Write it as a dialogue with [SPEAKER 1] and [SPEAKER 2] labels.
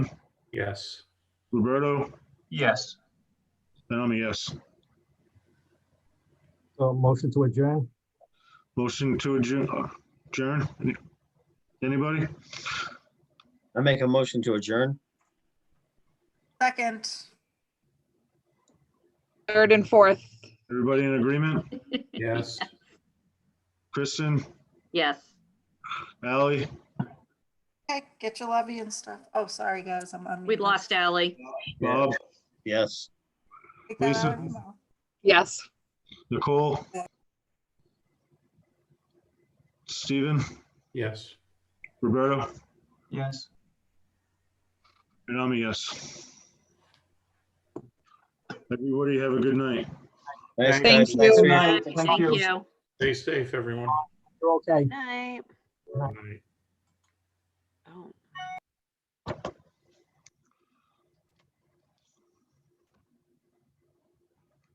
[SPEAKER 1] Yes.
[SPEAKER 2] Roberto,
[SPEAKER 3] Yes.
[SPEAKER 2] and I'm a yes.
[SPEAKER 4] So motion to adjourn?
[SPEAKER 2] Motion to adjourn, adjourn? Any- Anybody?
[SPEAKER 5] I make a motion to adjourn.
[SPEAKER 6] Second.
[SPEAKER 7] Third and fourth.
[SPEAKER 2] Everybody in agreement?
[SPEAKER 1] Yes.
[SPEAKER 2] Kristen,
[SPEAKER 8] Yes.
[SPEAKER 2] Ally,
[SPEAKER 6] Okay, get your levy and stuff. Oh, sorry, guys, I'm on.
[SPEAKER 8] We'd lost Ally.
[SPEAKER 2] Bob,
[SPEAKER 5] Yes.
[SPEAKER 2] Lisa.
[SPEAKER 7] Yes.
[SPEAKER 2] Nicole? Steven,
[SPEAKER 1] Yes.
[SPEAKER 2] Roberto,
[SPEAKER 3] Yes.
[SPEAKER 2] and I'm a yes. Everybody have a good night.
[SPEAKER 5] Thanks,
[SPEAKER 1] Thank
[SPEAKER 5] guys.
[SPEAKER 7] you.
[SPEAKER 5] Thanks for your-
[SPEAKER 3] Night, thank
[SPEAKER 8] Thank
[SPEAKER 3] you.
[SPEAKER 8] you.
[SPEAKER 1] Stay safe, everyone.
[SPEAKER 4] You're okay.
[SPEAKER 8] Night.
[SPEAKER 1] Good night.